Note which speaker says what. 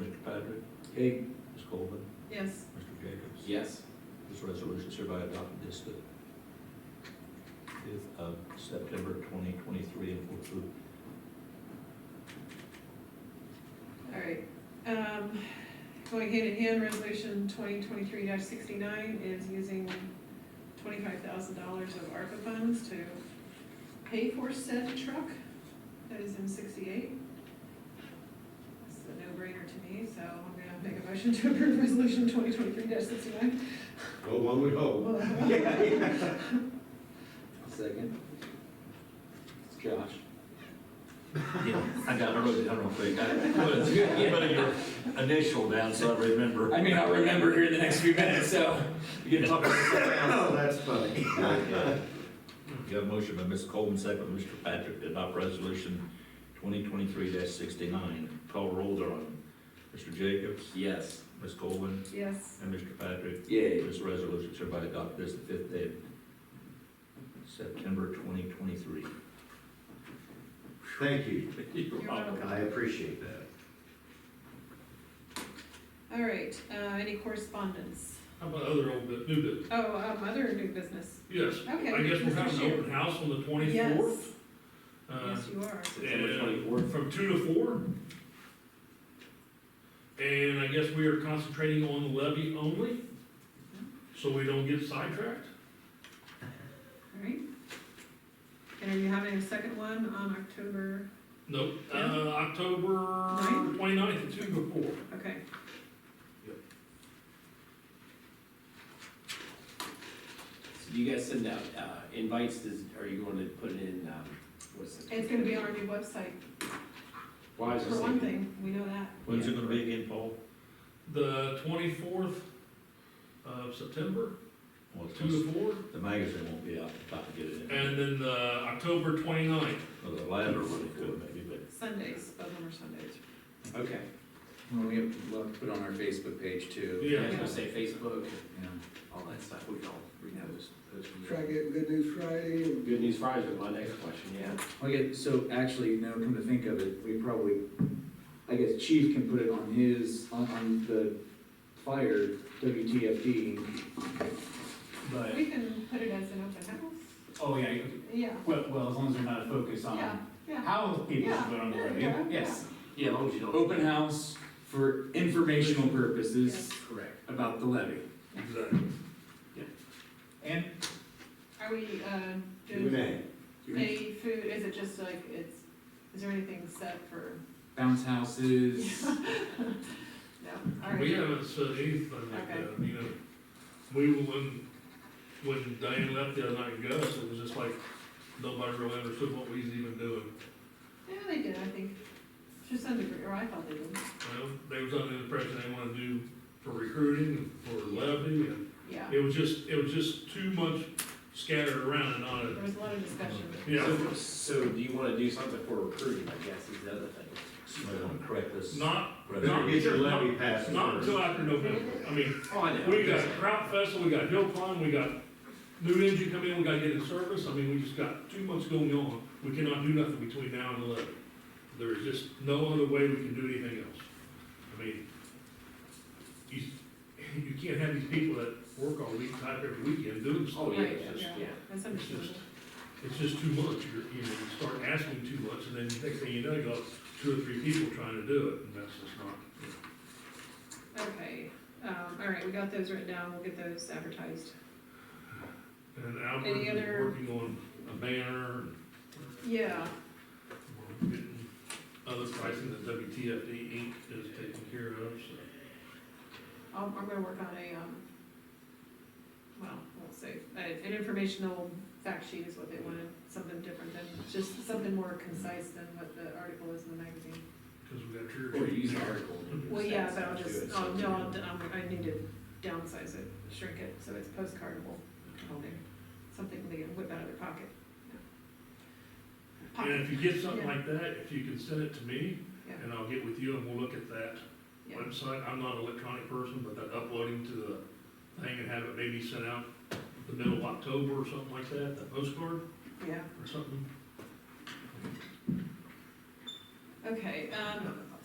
Speaker 1: Mr. Patrick? Kate. Ms. Coleman?
Speaker 2: Yes.
Speaker 1: Mr. Jacobs?
Speaker 3: Yes.
Speaker 1: This resolution is hereby adopted this the fifth of September twenty twenty-three and will approve.
Speaker 2: All right, um, going hand in hand, resolution twenty twenty-three sixty-nine is using twenty-five thousand dollars of ARPA funds to pay for said truck that is in sixty-eight. It's a no-brainer to me, so I'm gonna make a motion to approve resolution twenty twenty-three sixty-nine.
Speaker 4: Go one would hope.
Speaker 3: Second. Josh.
Speaker 1: Yeah, I got, I wrote it down real quick. I put it- put your initial down so I remember.
Speaker 3: I may not remember here in the next few minutes, so you can talk about this.
Speaker 4: Oh, that's funny.
Speaker 1: You have a motion by Ms. Coleman, second by Mr. Patrick, to adopt resolution twenty twenty-three sixty-nine. Call roll thereon. Mr. Jacobs?
Speaker 3: Yes.
Speaker 1: Ms. Coleman?
Speaker 2: Yes.
Speaker 1: And Mr. Patrick?
Speaker 3: Yay.
Speaker 1: This resolution is hereby adopted this the fifth day of September twenty twenty-three.
Speaker 4: Thank you.
Speaker 2: You're welcome.
Speaker 4: I appreciate that.
Speaker 2: All right, uh, any correspondence?
Speaker 5: How about other old, bu- new business?
Speaker 2: Oh, um, other new business?
Speaker 5: Yes.
Speaker 2: Okay.
Speaker 5: I guess we're having
Speaker 2: Mr.
Speaker 5: an open house on the twenty-fourth. Uh,
Speaker 2: Yes, yes, you are.
Speaker 3: September 24th.
Speaker 5: From two to four. And I guess we are concentrating on the levy only, so we don't get sidetracked.
Speaker 2: All right. And are you having a second one on October,
Speaker 5: Nope, uh,
Speaker 2: Yeah.
Speaker 5: October
Speaker 2: Ninth?
Speaker 5: twenty-ninth at two to four.
Speaker 2: okay.
Speaker 3: So you guys send out uh, invites, does, are you going to put it in, um, what's it?
Speaker 2: It's gonna be on our new website,
Speaker 3: Well, I was
Speaker 2: for
Speaker 3: just
Speaker 2: one
Speaker 3: thinking.
Speaker 2: thing, we know that.
Speaker 1: When's it gonna be again, Paul?
Speaker 5: The twenty-fourth of September,
Speaker 1: Well, it's-
Speaker 5: two to four,
Speaker 1: The magazine won't be out, about to get it in.
Speaker 5: and then the October twenty-ninth.
Speaker 1: Well, the latter one it could maybe, but
Speaker 2: Sundays, both of them are Sundays.
Speaker 3: Okay.
Speaker 6: Well, we have, we'll have to put on our Facebook page too.
Speaker 3: Yeah, I was
Speaker 5: Yeah,
Speaker 3: gonna say Facebook,
Speaker 6: Yeah.
Speaker 3: all that stuff, we can all repost. post.
Speaker 7: Try getting good news Friday and
Speaker 3: Good news Fridays was my next question, yeah.
Speaker 6: Okay, so actually, no, come to think of it, we probably, I guess Chief can put it on his, on, on the fire WTFD.
Speaker 3: Oh,
Speaker 6: But,
Speaker 2: We can put it as an open house,
Speaker 8: Oh, yeah,
Speaker 2: yeah,
Speaker 8: well, well, as long as they're not focused
Speaker 3: Um,
Speaker 2: yeah,
Speaker 8: on
Speaker 2: yeah.
Speaker 8: how people should vote on the
Speaker 2: Yeah,
Speaker 8: levy,
Speaker 2: yeah,
Speaker 8: yes.
Speaker 3: Yeah, as long as you don't.
Speaker 6: Open house for informational purposes
Speaker 3: Correct.
Speaker 6: about the levy.
Speaker 5: exactly.
Speaker 8: And
Speaker 2: Are we, uh,
Speaker 4: You
Speaker 2: doing
Speaker 4: may.
Speaker 2: any food, is it just like, it's, is there anything set for,
Speaker 6: Bounce houses,
Speaker 2: no, all right.
Speaker 5: We haven't said anything like that, you know, we, were- when, when Diane left the other night, and Gus, it was just like, nobody really understood what we was even doing.
Speaker 2: Yeah, they did, I think, to some degree, or I thought they did,
Speaker 5: Well, they was under the impression they wanted to do for recruiting and for levy, and
Speaker 2: yeah,
Speaker 5: it was just, it was just too much scattered around and
Speaker 2: there
Speaker 5: not,
Speaker 2: was a lot of discussion.
Speaker 5: yeah.
Speaker 3: So- So do you wanna do something for recruiting, I guess, is the other thing.
Speaker 1: somebody wanna correct this.
Speaker 5: Not,
Speaker 1: resolution.
Speaker 4: Get your levy passed
Speaker 5: not
Speaker 4: first.
Speaker 5: until after November, I mean,
Speaker 3: Oh, I know.
Speaker 5: we got Kraut Festival, we got Hill Climb, we got new engine coming in, we gotta get in service, I mean, we just got too much going on, we cannot do nothing between now and eleven. There is just no other way we can do anything else. I mean, you, you can't have these people that work all week, type every weekend doing this.
Speaker 3: Oh, yeah,
Speaker 2: Right,
Speaker 3: yeah,
Speaker 2: yeah,
Speaker 3: yeah.
Speaker 2: that's understandable.
Speaker 5: It's just too much, you're, you know, you start asking too much, and then next thing you know, you got two or three people trying to do it, and that's just not.
Speaker 2: Okay, um, all right, we got those written down, we'll get those advertised.
Speaker 5: And
Speaker 2: Any
Speaker 5: Albert
Speaker 2: other-
Speaker 5: is working on a banner, and
Speaker 2: Yeah,
Speaker 5: We're getting Other pricing that WTFD Inc. is taking care of, so.
Speaker 2: I'm, I'm gonna work on a, um, well, I won't say, a- an informational fact sheet is what they wanted, something different than, just something more concise than what the article is in the magazine.
Speaker 5: Because we got your.
Speaker 3: Or use an article. and
Speaker 2: Well, yeah, but I'll
Speaker 3: send it
Speaker 2: just,
Speaker 3: to us.
Speaker 2: oh, no, I'll- I'm, I need to downsize it, shrink it, so it's postcardable on there. Something they can whip out of their pocket.
Speaker 5: And
Speaker 2: Pocket,
Speaker 5: if you get something like that, if you can send it to me,
Speaker 2: Yeah.
Speaker 5: and I'll get with you and we'll look at that
Speaker 2: yeah.
Speaker 5: website. I'm not an electronic person, but that uploading to the thing and have it maybe sent out the middle of October or something like that, that postcard
Speaker 2: Yeah,
Speaker 5: or something.
Speaker 2: okay, um,